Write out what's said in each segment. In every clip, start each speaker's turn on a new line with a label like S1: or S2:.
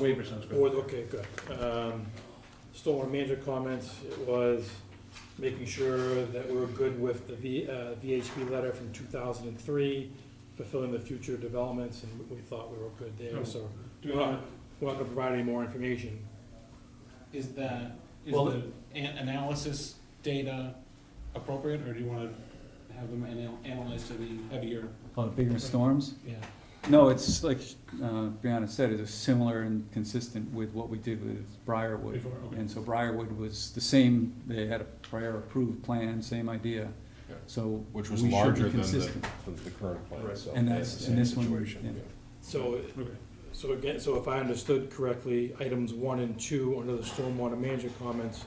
S1: Waiver sounds
S2: Or,
S1: good.
S2: okay, good. Um, Stormwater management comments was making sure that we were good with the V- uh, VHB letter from 2003, fulfilling the future developments, and we thought we were good
S3: Hmm.
S2: there, so
S1: Do not,
S2: we're not going to provide any more information.
S4: Is that, is
S3: Well,
S4: the an- analysis data appropriate, or do you wanna have them anal- analyzed to be heavier?
S3: Oh, the bigger storms?
S4: Yeah.
S3: No, it's like, uh, Brianna said, it was similar and consistent with what we did with Briarwood.
S4: Before, okay.
S3: And so Briarwood was the same, they had a prior approved plan, same idea,
S4: Okay.
S3: so.
S5: Which was
S3: we should be
S5: larger than the,
S3: consistent.
S5: than the current plan,
S1: Right.
S5: so.
S3: And
S5: they
S3: that's-
S5: had the
S3: and this
S5: same
S3: one,
S5: situation,
S3: yeah.
S2: So,
S1: okay.
S2: so again, so if I understood correctly, items one and two under the stormwater management comments,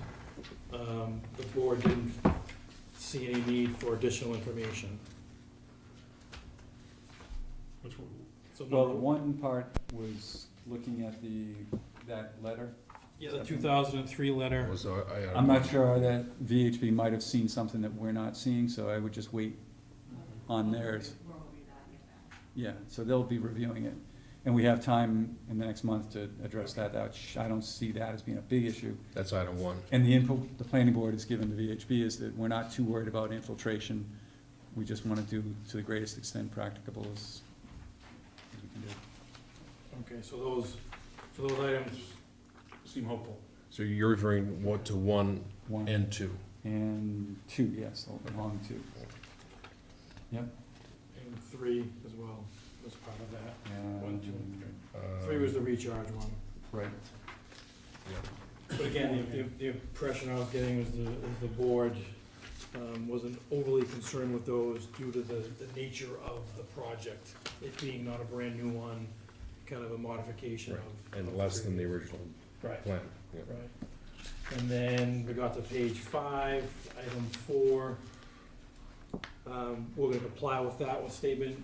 S2: um, the board didn't see any need for additional information.
S1: Which one?
S2: So
S3: Well,
S2: number-
S3: one part was looking at the, that letter.
S2: Yeah, the 2003 letter.
S5: Was, uh, I- I-
S3: I'm not sure that VHB might have seen something that we're not seeing, so I would just wait on theirs. Yeah, so they'll be reviewing it, and we have time in the next month to address that, That sh- I don't see that as being a big issue.
S5: That's item one.
S3: And the input the planning board has given to VHB is that we're not too worried about infiltration, we just wanna do to the greatest extent practicable as as we can do.
S2: Okay, so those, so those items,
S1: Seem hopeful.
S5: So you're referring what to one
S3: One
S5: and two?
S3: and two, yes, along two,
S2: and three as well, was part of that.
S1: One, two, and three.
S5: uh,
S2: Three was the recharge one.
S3: Right,
S2: But again, the, the- the impression I was getting was the, was the board um, wasn't overly concerned with those due to the, the nature of the project, it being not a brand-new one, kind of a modification of.
S5: And less than the original
S2: Right.
S5: plan. yeah.
S2: Right. And then we got to page five, item four. Um, we're gonna comply with that one statement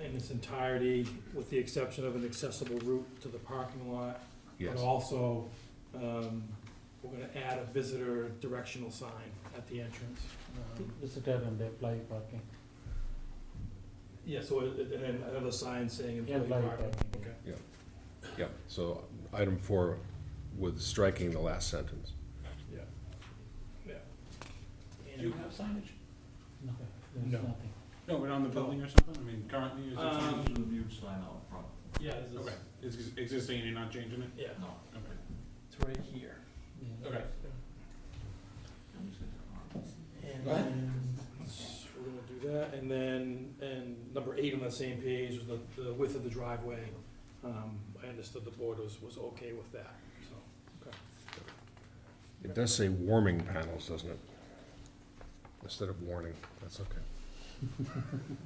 S2: in its entirety, with the exception of an accessible route to the parking lot.
S5: Yes.
S2: But also, um, we're gonna add a visitor directional sign at the entrance. Um,
S6: Visitor and employee parking.
S2: Yeah, so, it- it- and then another sign saying employee
S6: Employee
S2: parking.
S6: parking,
S2: Okay.
S5: Yeah, so item four with striking the last sentence.
S4: Do you have signage?
S6: No, there's
S2: No.
S6: nothing.
S4: No, but on the building or something, I mean, currently, is it
S2: Um,
S4: signage?
S2: Yeah, this is,
S4: Okay, it's ex- existing, and you're not changing it?
S2: yeah,
S4: Okay.
S2: it's right here.
S6: Yeah.
S4: Okay.
S2: And then, s- we're gonna do that, and then, and number eight on that same page was the, the width of the driveway. Um, I understood the board was, was okay with that, so.
S5: It does say warming panels, doesn't it? Instead of warning, that's okay. I think it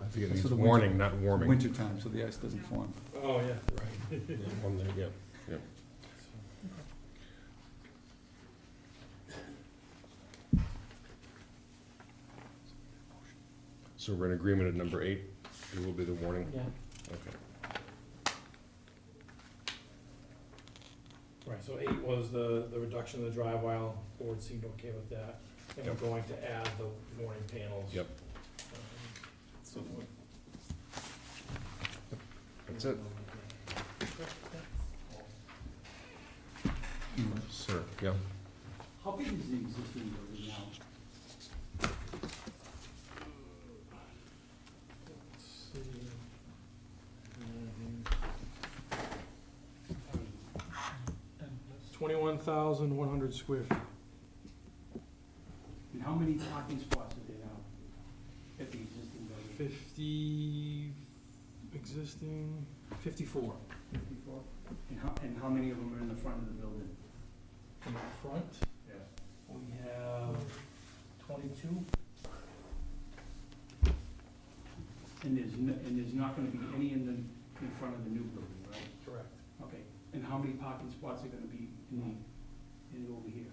S3: That's
S5: means
S3: for the winter-
S5: warning, not warming.
S3: winter time, so the ice doesn't form.
S2: Oh, yeah, right.
S5: Yeah, on the- yeah. So we're in agreement at number eight, it will be the warning,
S6: Yeah,
S5: okay.
S2: Right, so eight was the, the reduction of the drive aisle, board seemed okay with that, and we're
S5: Yep.
S2: going to add the warning panels.
S5: Yep.
S2: Um, So. we-
S5: That's it. Sir, yeah.
S3: How big is the existing building now?
S2: Let's see. Um,
S6: and plus-
S2: Twenty-one thousand, one hundred square feet.
S3: And how many parking spots are there now at the existing building?
S2: Fifty, existing, fifty-four.
S3: Fifty-four? And how, and how many of them are in the front of the building?
S2: In the front,
S3: Yeah.
S2: we have twenty-two.
S3: And there's, n- and there's not gonna be any in the, in front of the new building, right?
S2: Correct.
S3: Okay, and how many parking spots are gonna be in the, in the over here,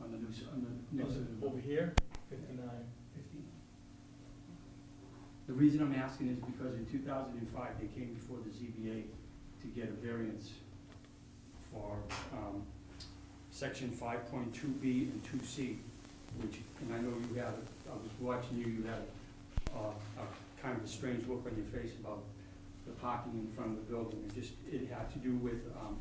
S3: on the new, s- on the next to the building?
S2: Over here, fifty-nine.
S3: 15. The reason I'm asking is because in 2005, they came before the ZBA to get a variance for um, section 5.2B and 2C, which, and I know you had, I was watching you, you had uh, a kind of a strange look on your face about the parking in front of the building. It just, it had to do with um,